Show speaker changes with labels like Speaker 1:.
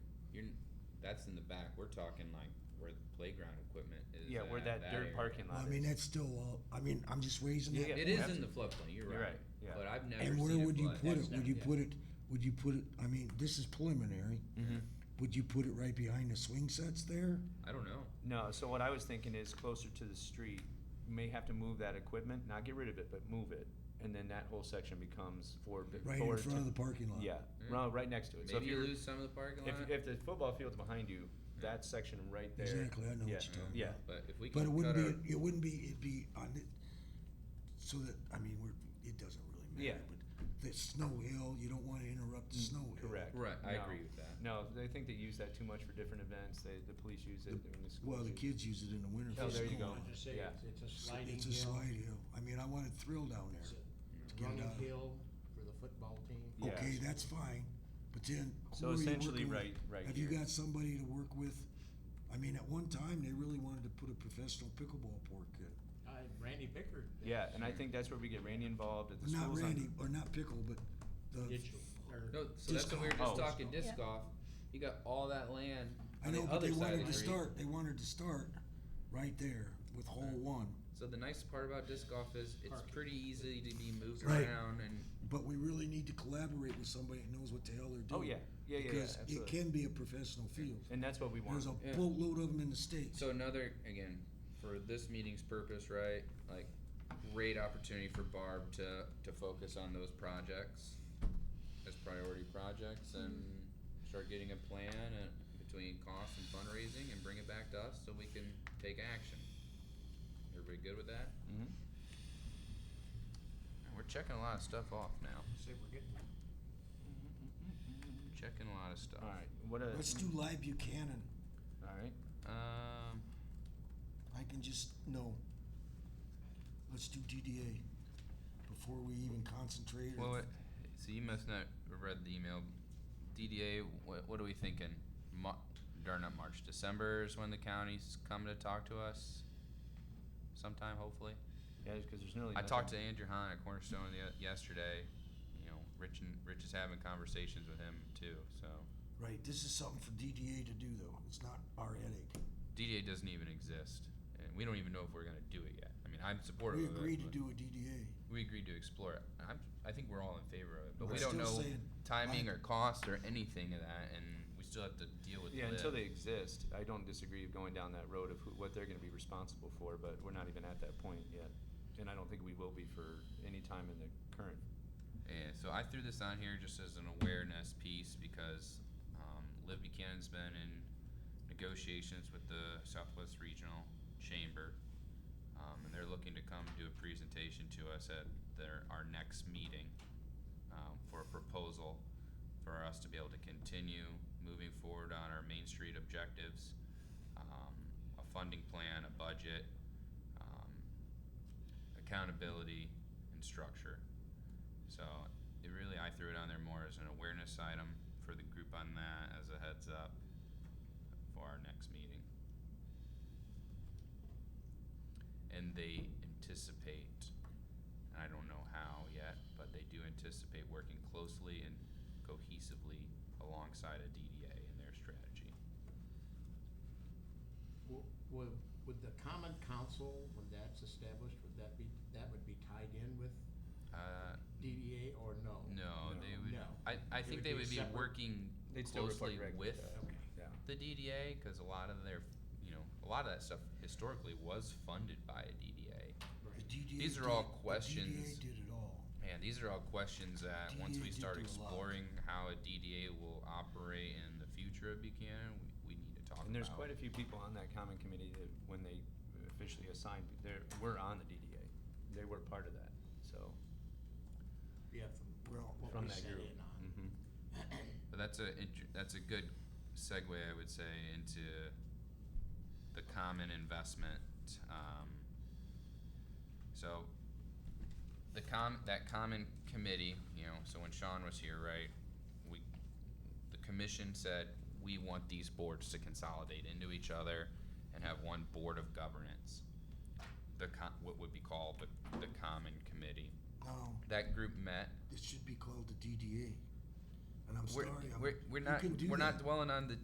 Speaker 1: that's in the back. We're talking like where the playground equipment is.
Speaker 2: Yeah, where
Speaker 1: at,
Speaker 2: that dirt
Speaker 1: area.
Speaker 2: parking
Speaker 3: Well,
Speaker 2: lot
Speaker 3: I mean,
Speaker 2: is.
Speaker 3: that's still, all- I mean, I'm just raising
Speaker 2: Yeah,
Speaker 3: that.
Speaker 1: It
Speaker 2: yeah.
Speaker 1: is in the floodplain. You're,
Speaker 2: You're
Speaker 1: right.
Speaker 2: right, yeah.
Speaker 1: But I've never.
Speaker 3: And where
Speaker 1: seen
Speaker 3: would you
Speaker 1: flood.
Speaker 3: put
Speaker 1: That's
Speaker 3: it? Would
Speaker 1: not-
Speaker 3: you
Speaker 1: yeah.
Speaker 3: put it, would you put it, I mean, this is preliminary.
Speaker 2: Mhm.
Speaker 3: Would you put it right behind the swing sets there?
Speaker 1: I don't know.
Speaker 2: No, so what I was thinking is closer to the street, you may have to move that equipment, not get rid of it, but move it. And then that whole section becomes forward.
Speaker 3: Right in
Speaker 2: forward
Speaker 3: front of
Speaker 2: to-
Speaker 3: the parking lot?
Speaker 2: Yeah,
Speaker 1: Mm.
Speaker 2: ro- right next to it. So if
Speaker 1: Maybe you
Speaker 2: you're,
Speaker 1: lose some of the parking lot.
Speaker 2: if, if the football field's behind you, that section right there.
Speaker 3: Exactly, I know what
Speaker 2: yeah,
Speaker 3: you're talking about.
Speaker 2: Yeah,
Speaker 1: but if we can
Speaker 3: But it wouldn't
Speaker 1: cut
Speaker 3: be, it wouldn't be, it'd be on it, so that, I mean, we're, it doesn't really
Speaker 2: Yeah.
Speaker 3: matter,
Speaker 2: Mm,
Speaker 3: but the snow hill, you don't wanna interrupt the snow hill.
Speaker 2: correct.
Speaker 1: our, right, I
Speaker 2: No.
Speaker 1: agree with that.
Speaker 2: No, they think they use that too much for different events. They, the police use it when the school.
Speaker 3: Well, the kids use it in the winter
Speaker 2: Oh,
Speaker 3: for
Speaker 2: there you go.
Speaker 3: school.
Speaker 4: I'd just say
Speaker 2: Yeah.
Speaker 4: it's- it's a
Speaker 3: It's-
Speaker 4: sliding
Speaker 3: It's a
Speaker 4: hill.
Speaker 3: slide hill. I mean, I want a thrill down
Speaker 4: It's
Speaker 3: there.
Speaker 4: a
Speaker 3: get it
Speaker 4: Running
Speaker 3: out.
Speaker 4: hill for the football team.
Speaker 2: Yeah.
Speaker 3: Okay, that's fine, but then. who
Speaker 2: So
Speaker 3: are you
Speaker 2: essentially,
Speaker 3: working
Speaker 2: right,
Speaker 3: with?
Speaker 2: right
Speaker 3: Have you
Speaker 2: here.
Speaker 3: got somebody to work with? I mean, at one time, they really wanted to put a professional pickleball court in.
Speaker 4: Uh, Randy Pickard.
Speaker 2: Yeah, and I think that's where we get Randy involved at the
Speaker 3: Not
Speaker 2: schools. on-
Speaker 3: Randy, or not pickle, but the,
Speaker 4: Digital, or
Speaker 1: No, so that's
Speaker 3: Disc
Speaker 1: what we were just
Speaker 2: golf. Oh.
Speaker 1: talking disc golf. You got all that land.
Speaker 3: I
Speaker 1: on
Speaker 3: know,
Speaker 1: the
Speaker 3: but
Speaker 1: other
Speaker 3: they
Speaker 1: side of
Speaker 3: wanted
Speaker 1: the
Speaker 3: to
Speaker 1: street.
Speaker 3: start, they wanted to start right there with hole one.
Speaker 1: So the nice part about disc golf is it's
Speaker 4: Parking.
Speaker 1: pretty easy to be moved
Speaker 3: Right.
Speaker 1: around and
Speaker 3: But we really need to collaborate with somebody that knows what the hell they're
Speaker 2: Oh,
Speaker 3: doing.
Speaker 2: yeah, yeah, yeah, yeah,
Speaker 3: Because it
Speaker 2: absolutely.
Speaker 3: can be a professional field.
Speaker 2: And that's what we want.
Speaker 3: There's a
Speaker 1: Yeah.
Speaker 3: boatload of them in the state.
Speaker 1: So another again for this meeting's purpose, right? Like great opportunity for Barb to to focus on those projects as priority projects and start getting a plan uh between cost and fundraising and bring it back to us so we can take action. Everybody good with that?
Speaker 2: Mhm.
Speaker 1: Man, We're checking a lot of stuff off now.
Speaker 4: say we're getting
Speaker 1: Checking a lot of stuff.
Speaker 2: All right, what a.
Speaker 3: Let's do live Buchanan.
Speaker 2: All right.
Speaker 1: Um,
Speaker 3: I can just, no. Let's do DDA before we even concentrate. or-
Speaker 1: well, what, so you must not have read the email. DDA, what, what are we thinking? Mar- or not March, December is when the county's coming to talk to us. Sometime, hopefully.
Speaker 2: Yeah, because there's nearly.
Speaker 1: I
Speaker 2: nothing.
Speaker 1: talked to Andrew Hahn at Cornerstone the, yesterday. You know, Rich and Rich is having conversations with him too. So
Speaker 3: Right, this is something for DDA to do though. It's not our headache.
Speaker 1: DDA doesn't even exist, and we don't even know if we're gonna do it yet. I mean, I'm supportive.
Speaker 3: We
Speaker 1: of it,
Speaker 3: agreed to
Speaker 1: but-
Speaker 3: do a DDA.
Speaker 1: we agreed to explore it. I'm, I think we're all in favor of it, but
Speaker 3: We're
Speaker 1: we don't
Speaker 3: still
Speaker 1: know
Speaker 3: saying,
Speaker 1: timing or cost or anything of that, and we still have to deal with
Speaker 2: Yeah,
Speaker 1: the-
Speaker 2: until they exist, I don't disagree with going down that road of who, what they're gonna be responsible for, but we're not even at that point yet. And I don't think we will be for any time in the current.
Speaker 1: Yeah, so I threw this on here just as an awareness piece because um, Liv Buchanan's been in negotiations with the Southwest Regional Chamber, um, and they're looking to come do a presentation to us at their our next meeting um, for a proposal for us to be able to continue moving forward on our Main Street objectives, um, a funding plan, a budget, um, accountability, and structure. So it really, I threw it on there more as an awareness item for the group on that as a heads up for our next meeting. And they anticipate, and I don't know how yet, but they do anticipate working closely and cohesively alongside a DDA in their strategy.
Speaker 4: W- Would, would the common council, when that's established, would that be, that would be tied in with
Speaker 1: Uh,
Speaker 4: DDA or no?
Speaker 1: no, they would,
Speaker 4: No.
Speaker 1: I, I
Speaker 4: It
Speaker 1: think
Speaker 4: would
Speaker 1: they
Speaker 4: be
Speaker 1: would be
Speaker 4: separate.
Speaker 1: working
Speaker 2: They'd still report
Speaker 1: closely
Speaker 2: directly
Speaker 1: with
Speaker 2: to-
Speaker 4: Okay.
Speaker 2: Yeah.
Speaker 1: the DDA because a lot of their, you know, a lot of that stuff historically was funded by a DDA.
Speaker 3: The
Speaker 4: Right.
Speaker 3: DDA
Speaker 1: These are
Speaker 3: did-
Speaker 1: all
Speaker 3: the
Speaker 1: questions.
Speaker 3: DDA did it all.
Speaker 1: And these are all questions that once
Speaker 3: DDA
Speaker 1: we
Speaker 3: did
Speaker 1: start
Speaker 3: do a lot.
Speaker 1: exploring how a DDA will operate in the future of Buchanan, we, we need to talk
Speaker 2: And there's
Speaker 1: about.
Speaker 2: quite a few people on that common committee that, when they officially assigned, they were on the DDA. They were part of that, so.
Speaker 4: Yeah, from
Speaker 3: Well,
Speaker 4: what
Speaker 2: from
Speaker 4: we
Speaker 2: that
Speaker 4: sat
Speaker 2: group.
Speaker 4: in on.
Speaker 2: Mm-hmm.
Speaker 1: But that's a inter- that's a good segue, I would say, into the common investment. Um, so the com that common committee, you know, so when Sean was here, right, we the commission said we want these boards to consolidate into each other and have one board of governance. The com- what would be called the, the common committee.
Speaker 3: No,
Speaker 1: That group met
Speaker 3: it should be called the DDA. And I'm
Speaker 1: we're,
Speaker 3: sorry, I'm.
Speaker 1: we're, we're
Speaker 3: you
Speaker 1: not
Speaker 3: can do
Speaker 1: we're
Speaker 3: that.
Speaker 1: not dwelling on the